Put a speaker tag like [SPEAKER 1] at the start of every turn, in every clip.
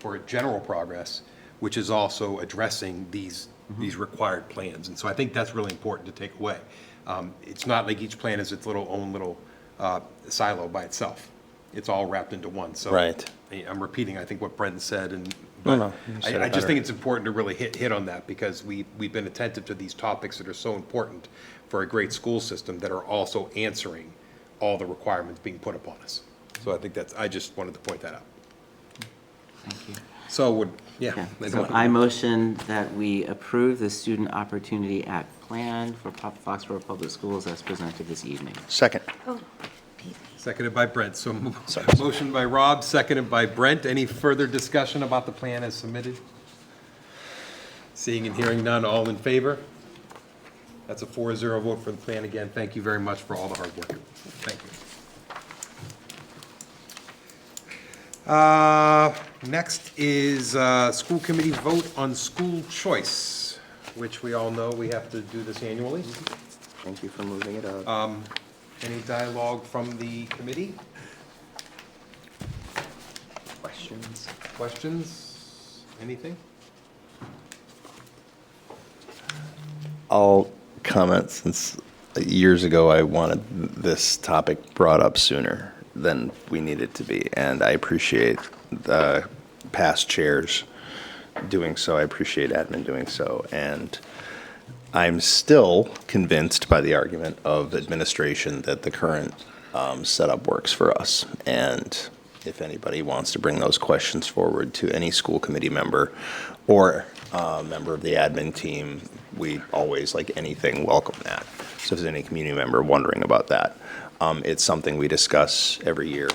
[SPEAKER 1] for general progress, which is also addressing these,
[SPEAKER 2] Mm-hmm.
[SPEAKER 1] these required plans. And so I think that's really important to take away. Um, It's not like each plan is its little own little uh, silo by itself. It's all wrapped into one, so.
[SPEAKER 2] Right.
[SPEAKER 1] I- I'm repeating, I think, what Brendan said, and,
[SPEAKER 2] No,
[SPEAKER 1] but
[SPEAKER 2] no, you said it
[SPEAKER 1] I, I just
[SPEAKER 2] better.
[SPEAKER 1] think it's important to really hit, hit on that, because we, we've been attentive to these topics that are so important for a great school system that are also answering all the requirements being put upon us. So I think that's, I just wanted to point that out. So would, yeah. I
[SPEAKER 3] So
[SPEAKER 1] don't-
[SPEAKER 3] I motion that we approve the Student Opportunity Act plan for Pop- Foxborough Public Schools as presented this evening.
[SPEAKER 2] Second.
[SPEAKER 4] Oh,
[SPEAKER 1] Seconded by Brent, so mo- motion by Rob, seconded by Brent. Any further discussion about the plan as submitted? Seeing and hearing none, all in favor? That's a 4-0 vote for the plan again. Thank you very much for all the hard work. Thank you. Uh, Next is uh, school committee vote on school choice, which we all know we have to do this annually.
[SPEAKER 3] Thank you for moving it up.
[SPEAKER 2] Uh,
[SPEAKER 1] Any dialogue from the committee?
[SPEAKER 3] Questions?
[SPEAKER 1] Questions? Anything?
[SPEAKER 2] I'll comment since years ago I wanted this topic brought up sooner than we need it to be, and I appreciate the past chairs doing so. I appreciate admin doing so, and I'm still convinced by the argument of administration that the current um, setup works for us. And if anybody wants to bring those questions forward to any school committee member or uh, member of the admin team, we always, like anything, welcome that. So if there's any community member wondering about that, um, it's something we discuss every year.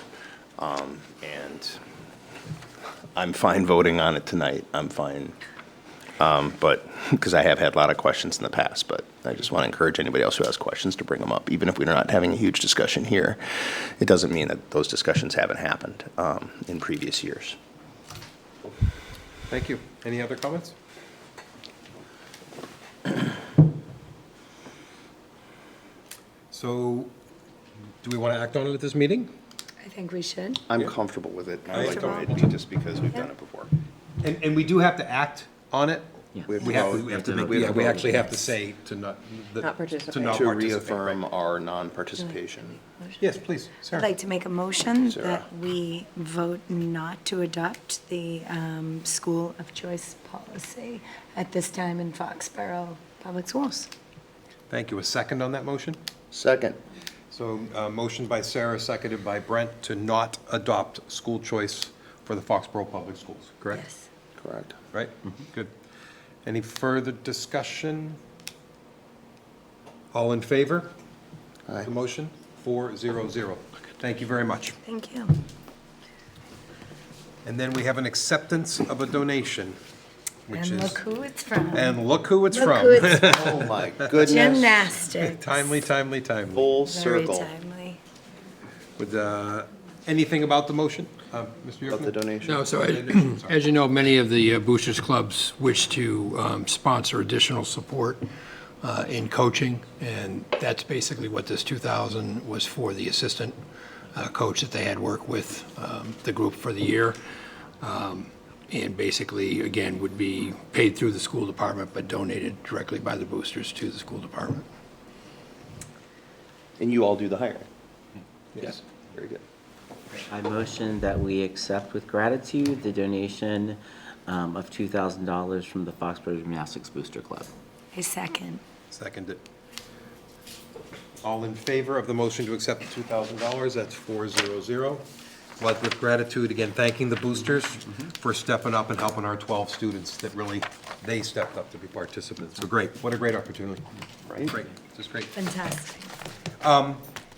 [SPEAKER 2] Um, And I'm fine voting on it tonight. I'm fine but, because I have had a lot of questions in the past, but I just want to encourage anybody else who has questions to bring them up. Even if we're not having a huge discussion here, it doesn't mean that those discussions haven't happened um, in previous years.
[SPEAKER 1] Thank you. Any other comments? So, do we want to act on it at this meeting?
[SPEAKER 4] I think we should.
[SPEAKER 2] I'm comfortable with it.
[SPEAKER 1] I like the way
[SPEAKER 4] it
[SPEAKER 2] just because we've
[SPEAKER 4] done it
[SPEAKER 2] before.
[SPEAKER 1] And, and we do have to act on it?
[SPEAKER 3] Yeah.
[SPEAKER 2] We have
[SPEAKER 1] We
[SPEAKER 2] to
[SPEAKER 1] have,
[SPEAKER 2] vote.
[SPEAKER 1] to- we have to
[SPEAKER 3] We have
[SPEAKER 1] make,
[SPEAKER 3] to
[SPEAKER 1] yeah, we
[SPEAKER 3] vote.
[SPEAKER 1] actually have to say to not. that-
[SPEAKER 5] Not participate.
[SPEAKER 1] To not
[SPEAKER 2] To
[SPEAKER 1] participate.
[SPEAKER 2] reaffirm our non-participation.
[SPEAKER 1] Yes, please,
[SPEAKER 4] I'd
[SPEAKER 1] Sarah.
[SPEAKER 4] like to make a motion
[SPEAKER 2] Sarah.
[SPEAKER 4] that we vote not to adopt the um, school of choice policy at this time in Foxborough Public Schools.
[SPEAKER 1] Thank you. A second on that motion?
[SPEAKER 2] Second.
[SPEAKER 1] So, uh, motion by Sarah, seconded by Brent, to not adopt school choice for the Foxborough Public Schools, correct?
[SPEAKER 4] Yes.
[SPEAKER 2] Correct.
[SPEAKER 1] Right? Mm-hmm. Good. Any further discussion? All in favor?
[SPEAKER 2] Aye.
[SPEAKER 1] The motion? Four, zero, zero. Thank you very much.
[SPEAKER 4] Thank you.
[SPEAKER 1] And then we have an acceptance of a donation, which is,
[SPEAKER 4] And look who it's from.
[SPEAKER 1] and look who it's
[SPEAKER 4] Look who
[SPEAKER 1] from.
[SPEAKER 4] it's from.
[SPEAKER 2] Oh, my goodness.
[SPEAKER 4] Gymnastics.
[SPEAKER 1] Timely, timely, timely.
[SPEAKER 2] Full
[SPEAKER 4] Very
[SPEAKER 2] circle
[SPEAKER 4] timely.
[SPEAKER 1] Would, uh, anything about the motion? Uh, Mr.
[SPEAKER 2] of the
[SPEAKER 1] Yocum?
[SPEAKER 2] donation.
[SPEAKER 6] No, so as- as you know, many of the uh, boosters clubs wish to um, sponsor additional support uh, in coaching, and that's basically what this 2,000 was for, the assistant uh, coach that they had worked with um, the group for the year. Um, And basically, again, would be paid through the school department, but donated directly by the boosters to the school department.
[SPEAKER 2] And you all do the hiring.
[SPEAKER 6] Yes.
[SPEAKER 2] Very good.
[SPEAKER 3] I motion that we accept with gratitude the donation um, of $2,000 from the Foxborough Gymnastics Booster Club.
[SPEAKER 4] A second.
[SPEAKER 1] Seconded. All in favor of the motion to accept the $2,000, that's 400. But with gratitude, again, thanking the boosters for stepping up and helping our 12 students that really, they stepped up to be participants. So great, what a great opportunity.
[SPEAKER 2] Right.
[SPEAKER 1] Great, just great.
[SPEAKER 4] Fantastic.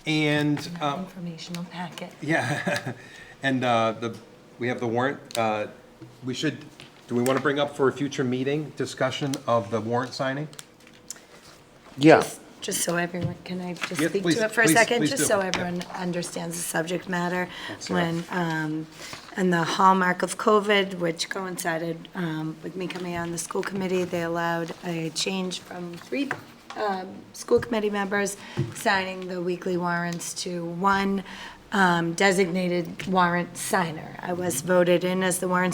[SPEAKER 1] And, uh,
[SPEAKER 4] Informational packet.
[SPEAKER 1] yeah, and uh, the, we have the warrant. uh, We should, do we want to bring up for a future meeting, discussion of the warrant signing?
[SPEAKER 2] Yeah.
[SPEAKER 4] Just so everyone, can I just
[SPEAKER 1] Yeah,
[SPEAKER 4] speak
[SPEAKER 1] please-
[SPEAKER 4] to it for a
[SPEAKER 1] please-
[SPEAKER 4] second?
[SPEAKER 1] please do.
[SPEAKER 4] Just so
[SPEAKER 1] Yeah.
[SPEAKER 4] everyone understands the subject matter.
[SPEAKER 1] Sarah.
[SPEAKER 4] When, um, and the hallmark of COVID, which coincided um, with me coming on the school committee, they allowed a change from three um, school committee members signing the weekly warrants to one um, designated warrant signer. I was voted in as the warrant